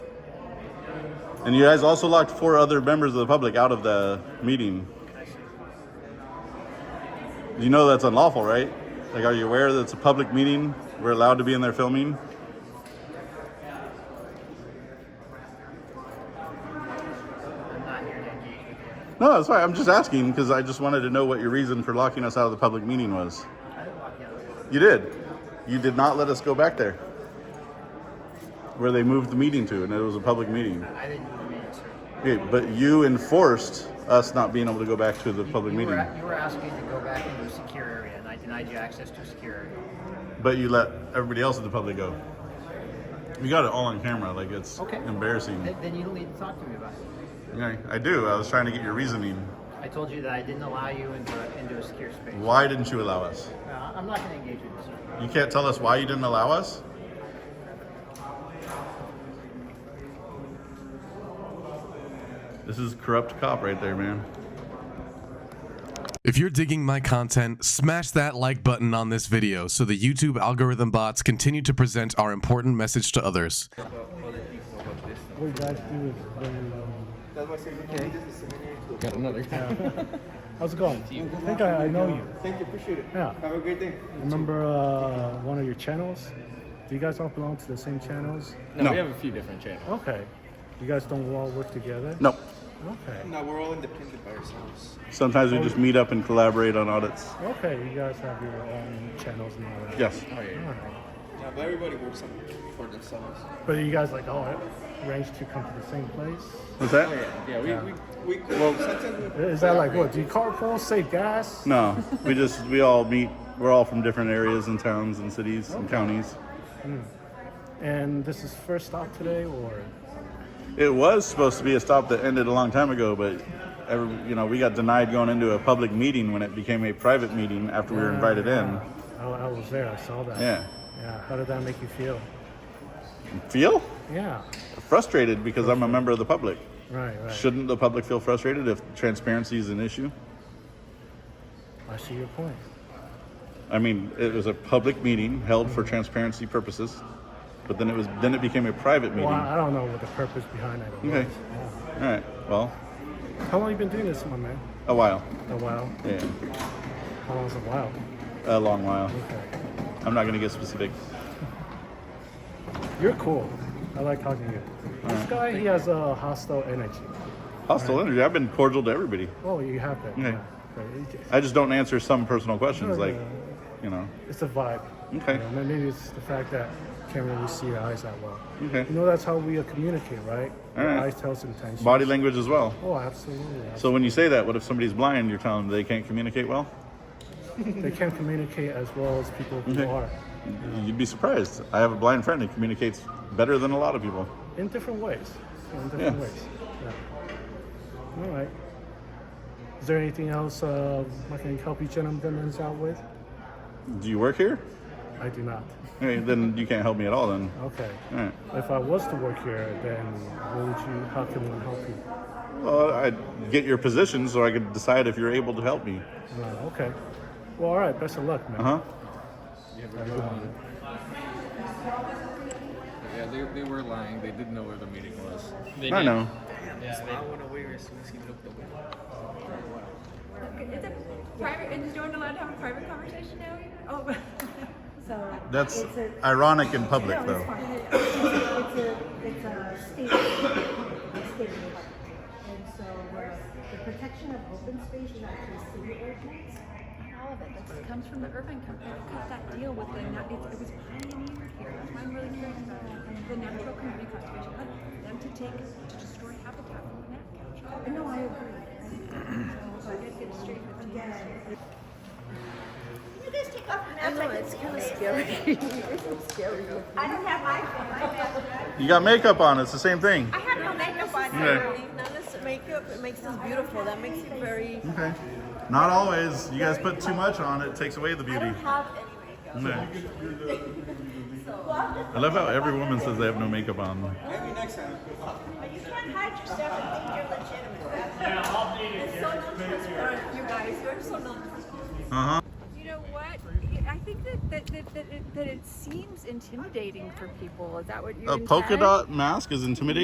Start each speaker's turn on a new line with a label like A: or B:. A: And you guys also locked four other members of the public out of the meeting. You know that's unlawful, right? Like, are you aware that it's a public meeting? We're allowed to be in there filming?
B: I'm not here to engage with you.
A: No, that's right. I'm just asking because I just wanted to know what your reason for locking us out of the public meeting was.
B: I didn't walk out.
A: You did. You did not let us go back there where they moved the meeting to, and it was a public meeting.
B: I didn't do the meeting, sir.
A: Okay, but you enforced us not being able to go back to the
B: You-
A: public
B: you
A: meeting,
B: Were, you were asking to go back into a secure area, and I denied you access to a secure area.
A: but you let everybody else in the public go. You got it all on camera, like it's
B: Okay.
A: embarrassing.
B: Then, then you don't need to talk to me about it.
A: Okay, I do. I was trying to get your reasoning.
B: I told you that I didn't allow you into, a- into a secure space.
A: Why didn't you allow us?
B: Uh, I'm not going to engage with you, sir.
A: You can't tell us why you didn't allow us? This is corrupt cop right there, man.
C: If you're digging my content, smash that like button on this video so the YouTube algorithm bots continue to present our important message to others.
D: What you guys do is very um,
E: Got another.
D: How's it going? I think I, I know you.
F: Thank you, appreciate it.
D: Yeah.
F: Have a great day.
D: Remember uh, one of your channels? Do you guys all belong to the same channels?
E: No, we have a few different channels.
D: Okay. You guys don't all work together?
A: No.
D: Okay.
F: Now we're all independent by ourselves.
A: Sometimes we just meet up and collaborate on audits.
D: Okay, you guys have your own channels and all that.
A: Yes.
E: Oh, yeah.
D: All right.
F: Yeah, but everybody works on, for themselves.
D: But are you guys like all arranged to come to the same place?
A: What's
E: Oh,
A: that?
E: yeah. Yeah, we, we
F: We could, sometimes we,
D: Is that like what? Do you carpool, save gas?
A: No. We just we all meet. We're all from different areas and towns and cities and counties.
D: And this is first stop today, or
A: It was supposed to be a stop that ended a long time ago, but every, you know we got denied going into a public meeting when it became a private meeting after we were invited in.
D: I, I was there. I saw that.
A: Yeah.
D: Yeah. How did that make you feel?
A: Feel?
D: Yeah.
A: frustrated because I'm a member of the public.
D: Right. Right.
A: Shouldn't the public feel frustrated if transparency is an issue?
D: I see your point.
A: I mean, it was a public meeting held for transparency purposes, but then it was then it became a private meeting.
D: Well, I don't know what the purpose behind that was.
A: Okay. All right. Well,
D: Yeah. How long you been doing this, my man?
A: a while.
D: A while.
A: Yeah,
D: How long's a while?
A: a long while.
D: Okay.
A: I'm not going to get specific.
D: You're cool. I like talking to you. This guy, he has a hostile energy.
A: Hostile energy. I've been cordial to everybody.
D: Oh, you have that.
A: Okay.
D: Yeah. Right. It-
A: I just don't answer some personal questions,
D: Yeah,
A: like,
D: yeah.
A: you know.
D: It's a vibe.
A: Okay.
D: You know, maybe it's the fact that you can't really see your eyes that well.
A: Okay.
D: You know, that's how we uh, communicate, right?
A: All
D: Your
A: right.
D: eyes tells intention.
A: Body language as well.
D: Oh, absolutely.
A: So when you say that, what if somebody's blind? You're telling them they can't communicate well.
D: they can't communicate as well as people who
A: Okay.
D: are
A: You'd be surprised. I have a blind friend who communicates better than a lot of people.
D: in different ways. In different
A: Yeah.
D: ways. Yeah. All right. Is there anything else uh, I can help you gentlemen out with?
A: Do you work here?
D: I do not.
A: Okay, then you can't help me at all. Then,
D: Okay.
A: all right.
D: If I was to work here, then what would you? How can one help you?
A: Well, I'd get your position so I could decide if you're able to help me.
D: Uh, okay. Well, all right. Best of luck, man.
A: Uh huh.
E: yeah they, they were lying. They didn't know where the meeting was.
A: I know.
G: It's a private, and you're not allowed to have a private conversation now even? Oh, so.
A: That's
G: it's a-
A: ironic in public,
G: No, it's
A: though.
G: fine. It's a, it's a- it's a state, a state park. And so uh, the protection of open space is actually city ordinance.
H: All of it. That comes from the urban company. Cut that deal with the, na- it it was pioneered here. That's why I'm really curious about it. The natural community conservation, Cut them to take, to destroy habitat from the map capture.
G: No, I agree.
H: So I gotta get straight with you.
G: Again,
I: You guys take off your masks. I know, it's kind of scary.
G: I don't have my phone.
A: You got makeup on. It's the same thing.
I: I have no makeup on.
A: Okay.
I: None is makeup. It makes us beautiful. That makes it very.
A: Okay. Not always. You guys put too much on. It takes away the
I: I
A: beauty.
I: don't have any makeup.
A: Okay.
I: Well, I'm just-
A: I love how every woman says they have no makeup on.
F: maybe next time.
I: but you can't hide yourself and think you're legitimate. That's yeah, I'll be It's so non-transparent, you guys. You're so non-transparent.
A: Uh-huh.
H: You know what? Yeah, I think that, that, that, that, it, that it seems intimidating for people. Is that what you're
A: A polka
H: implying?
A: dot mask is intimidating.